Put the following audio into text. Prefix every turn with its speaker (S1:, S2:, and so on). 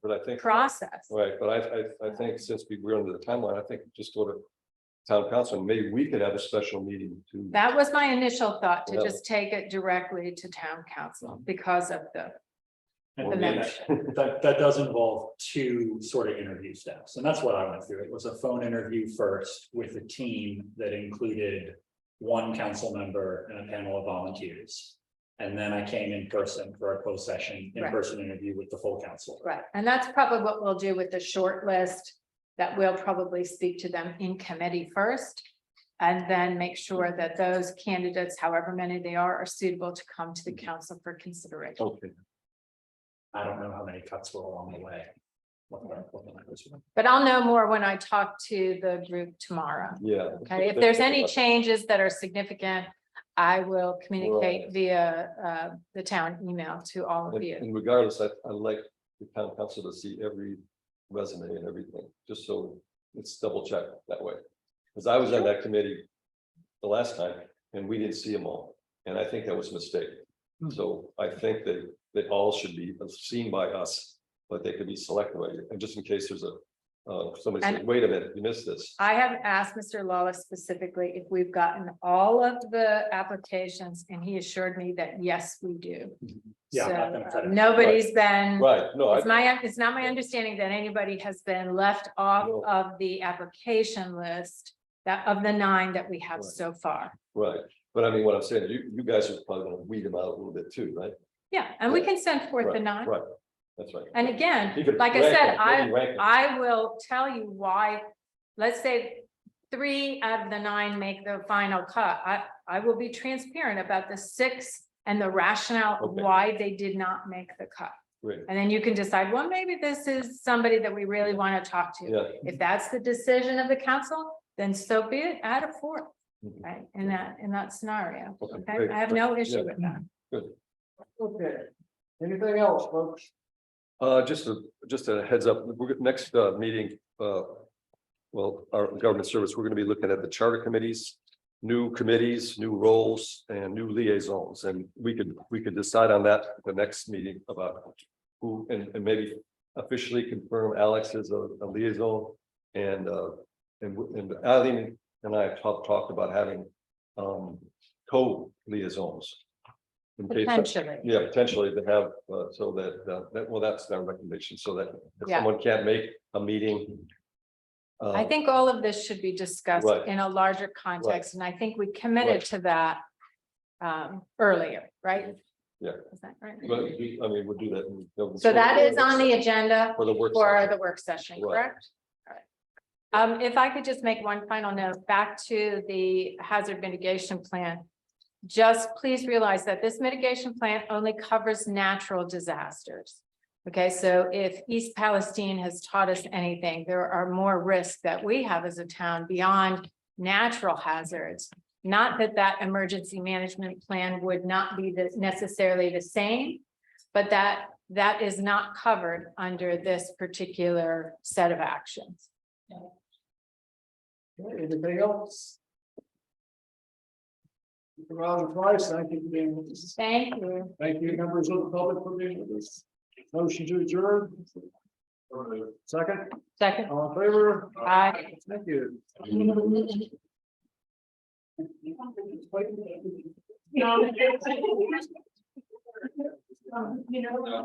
S1: but I think,
S2: process.
S1: right, but I, I, I think since we- we're under the timeline, I think just go to town council, and maybe we could have a special meeting to.
S2: That was my initial thought to
S1: Yeah.
S2: just take it directly to town council because of the,
S3: I
S1: Or
S3: think
S1: maybe-
S3: that- That, that does involve two sort of interview steps, and that's what I went through. It was a phone interview first with a team that included one council member and a panel of volunteers. And then I came in person for a closed session,
S2: Right.
S3: in-person interview with the full council.
S2: right, and that's probably what we'll do with the short list. That we'll probably speak to them in committee first. And then make sure that those candidates, however many they are, are suitable to come to the council for consideration.
S1: Okay,
S3: I don't know how many cuts were along the way. What the- what the numbers were.
S2: But I'll know more when I talk to the group tomorrow.
S1: yeah.
S2: Okay, if there's any changes that are significant, I will communicate via uh the town email to all of
S1: And-
S2: you.
S1: And regardless, I, I like the town council to see every resume and everything, just so it's double checked that way. Cause I was on that committee the last time and we didn't see them all, and I think that was a mistake.
S2: Hmm.
S1: So I think that they all should be seen by us, but they could be selected, by you. and just in case there's a, uh, somebody says, wait a minute, you missed this.
S2: I have asked Mr. Lawless specifically if we've gotten all of the applications and he assured me that yes, we do.
S3: Yeah, I'm not
S2: So
S3: gonna cut
S2: uh,
S3: it.
S2: nobody's been,
S1: Right, no, I,
S2: it's my, it's not my understanding that anybody has been left off
S1: No.
S2: of the application list. That of the nine that we have
S1: Right.
S2: so far.
S1: right, but I mean, what I'm saying, you, you guys are probably gonna weed them out a little bit too, right?
S2: Yeah, and we can send forth the
S1: Right,
S2: nine.
S1: Right, that's right.
S2: And again,
S1: You could
S2: like I
S1: rank
S2: said,
S1: them,
S2: I-
S1: maybe rank them.
S2: I will tell you why, let's say three out of the nine make the final cut. I, I will be transparent about the six and the rationale of
S1: Okay.
S2: why they did not make the cut.
S1: Great,
S2: And then you can decide, well, maybe this is somebody that we really want to talk to.
S1: yeah,
S2: If that's the decision of the council, then so be it, add a fourth,
S1: Mhm.
S2: right, in that, in that scenario.
S1: Okay,
S2: Okay,
S1: great.
S2: I have no issue
S1: Yeah.
S2: with that.
S4: Okay, anything else, folks?
S1: uh, just a, just a heads up, we're, next, uh, meeting, uh. Well, our government service, we're gonna be looking at the charter committees, new committees, new roles and new liaisons, and we could, we could decide on that at the next meeting about. Who, and, and maybe officially confirm Alex as a a liaison and, uh, and, w- and Eileen and I have talked, talked about having. Um, co-liaisons. in case that-
S2: Potentially,
S1: Yeah, potentially to have, uh, so that, uh, that, well, that's their recommendation, so that if
S2: Yeah.
S1: someone can't make a meeting. uh,
S2: I think all of this should be discussed
S1: Right.
S2: in a larger context, and I think we committed
S1: Right.
S2: to that um, earlier, right?
S1: Yeah.
S2: Is that right?
S1: But we- I mean, we'll do that. in-
S2: So that is on the agenda
S1: For the work.
S2: for
S1: session.
S2: the work session,
S1: Right.
S2: correct? All right. Um, if I could just make one final note, back to the hazard mitigation plan. Just please realize that this mitigation plan only covers natural disasters. Okay, so if East Palestine has taught us anything, there are more risks that we have as a town beyond natural hazards. Not that that emergency management plan would not be the- necessarily the same, but that, that is not covered under this particular set of actions.
S4: Anything else? Mr. Rollins, twice, thank you for being with us.
S2: Thank you.
S4: Thank you, members of the public for being with us. Motion to adjourn. Second,
S2: Second,
S4: all in favor?
S2: Aye.
S4: Thank you.